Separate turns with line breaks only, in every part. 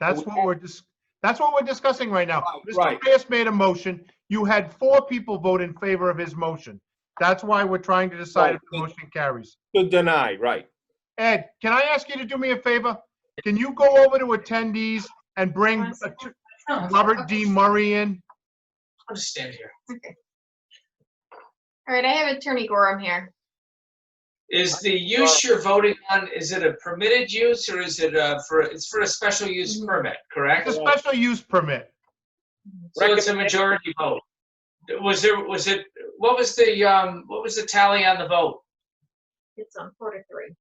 That's what we're dis, that's what we're discussing right now.
Right,
Mr.
right.
Reyes made a motion. You had four people vote in favor of his motion. That's why we're trying to decide if the
Right.
motion carries.
To deny, right.
Ed, can I ask you to do me a favor? Can you go over to attendees and bring
One
uh,
second. No,
Robert D. Murray in?
I'll just stand here.
All right, I have Attorney Gorham here.
Is the use you're voting on, is it a permitted use or is it uh for, it's for a special use permit, correct?
Mm-hmm. It's a special use permit.
So it's a majority vote. Was there, was it, what was the, um, what was the tally on the vote?
It's on quarter three.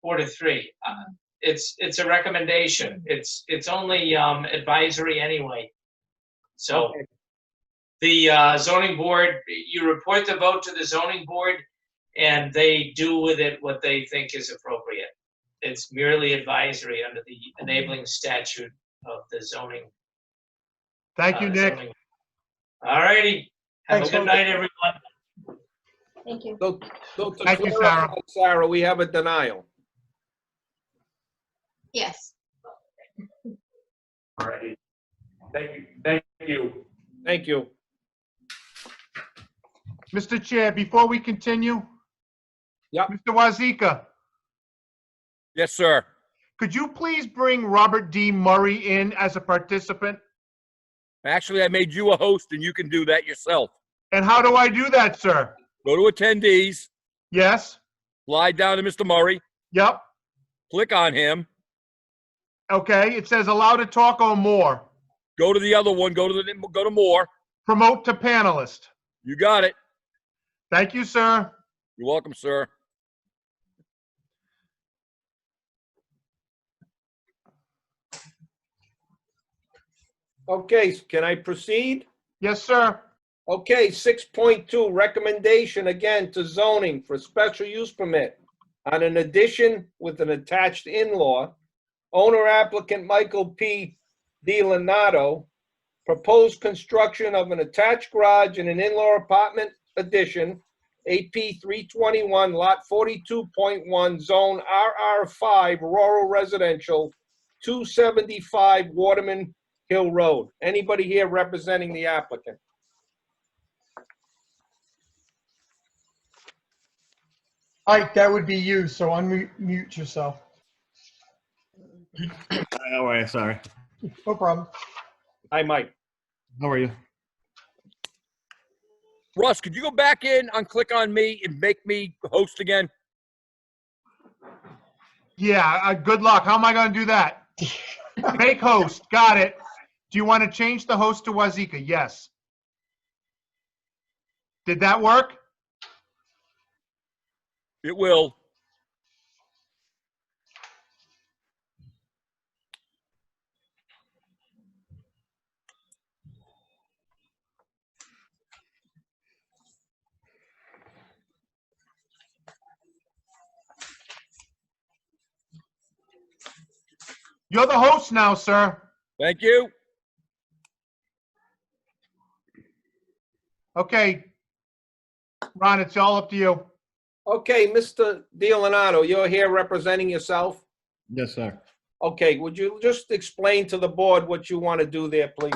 Four to three. Uh,
Mm-hmm.
It's, it's a recommendation. It's, it's only um advisory anyway. So
Okay.
the uh, zoning board, you report the vote to the zoning board and they do with it what they think is appropriate. It's merely advisory under the enabling statute of the zoning.
Thank you,
uh,
Nick.
zoning. All righty. Have a
Thanks,
good
Hope.
night, everyone.
Thank you.
So- so to
Thank you,
clarify, Sarah, we have a denial.
Yes.
All righty. Thank you, thank you.
Thank you.
Mr. Chair, before we continue?
Yep.
Mr. Wazika,
Yes, sir.
could you please bring Robert D. Murray in as a participant?
Actually, I made you a host and you can do that yourself.
And how do I do that, sir?
Go to attendees,
Yes?
slide down to Mr. Murray,
Yep?
click on him,
Okay, it says allow to talk or more.
go to the other one, go to the, go to more.
Promote to panelist.
You got it.
Thank you, sir.
You're welcome, sir.
Okay, can I proceed?
Yes, sir.
Okay, 6.2, recommendation again to zoning for special use permit on an addition with an attached in-law. Owner applicant Michael P. DiLanato, proposed construction of an attached garage and an in-law apartment addition, AP 321, Lot 42.1, Zone RR5, Rural Residential, 275 Waterman Hill Road. Anybody here representing the applicant?
Ike, that would be you, so unmute yourself.
Hi, How are you? Oh, Sorry.
No problem.
Hi, Mike.
How are you?
Russ, could you go back in and click on me and make me host again?
Yeah, uh, good luck. How am I gonna do that? Make host, got it. Do you want to change the host to Wazika? Yes. Did that work?
It will.
You're the host now, sir.
Thank you.
Okay. Ron, it's all up to you.
Okay, Mr. DiLanato, you're here representing yourself.
Yes, sir.
Okay, would you just explain to the board what you want to do there, please?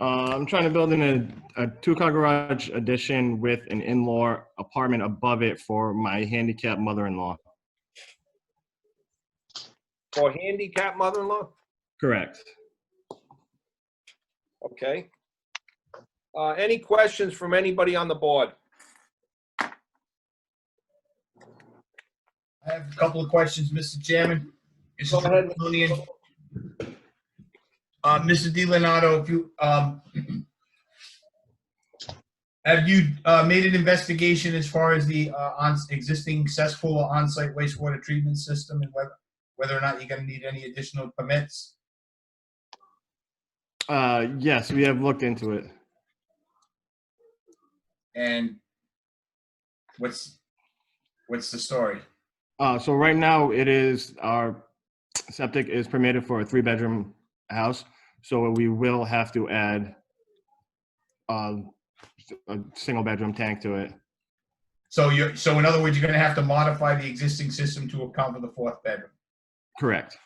Uh, I'm trying to build in a, a two-car garage addition with an in-law apartment above it for my handicapped mother-in-law.
For handicapped mother-in-law?
Correct.
Okay. Uh, Any questions from anybody on the board?
I have a couple of questions, Mr. Chairman. This
Go
is
ahead.
Tony. Uh, Mr. DiLeonardo, if you, um, have you, uh, made an investigation as far as the, uh, on, existing cesspool or on-site wastewater treatment system and whether, whether or not you're gonna need any additional permits?
Uh, yes, we have looked into it.
And what's, what's the story?
Uh, so right now it is, our septic is permitted for a three-bedroom house. So we will have to add uh, a single-bedroom tank to it.
So you're, so in other words, you're gonna have to modify the existing system to account for the fourth bedroom?
Correct.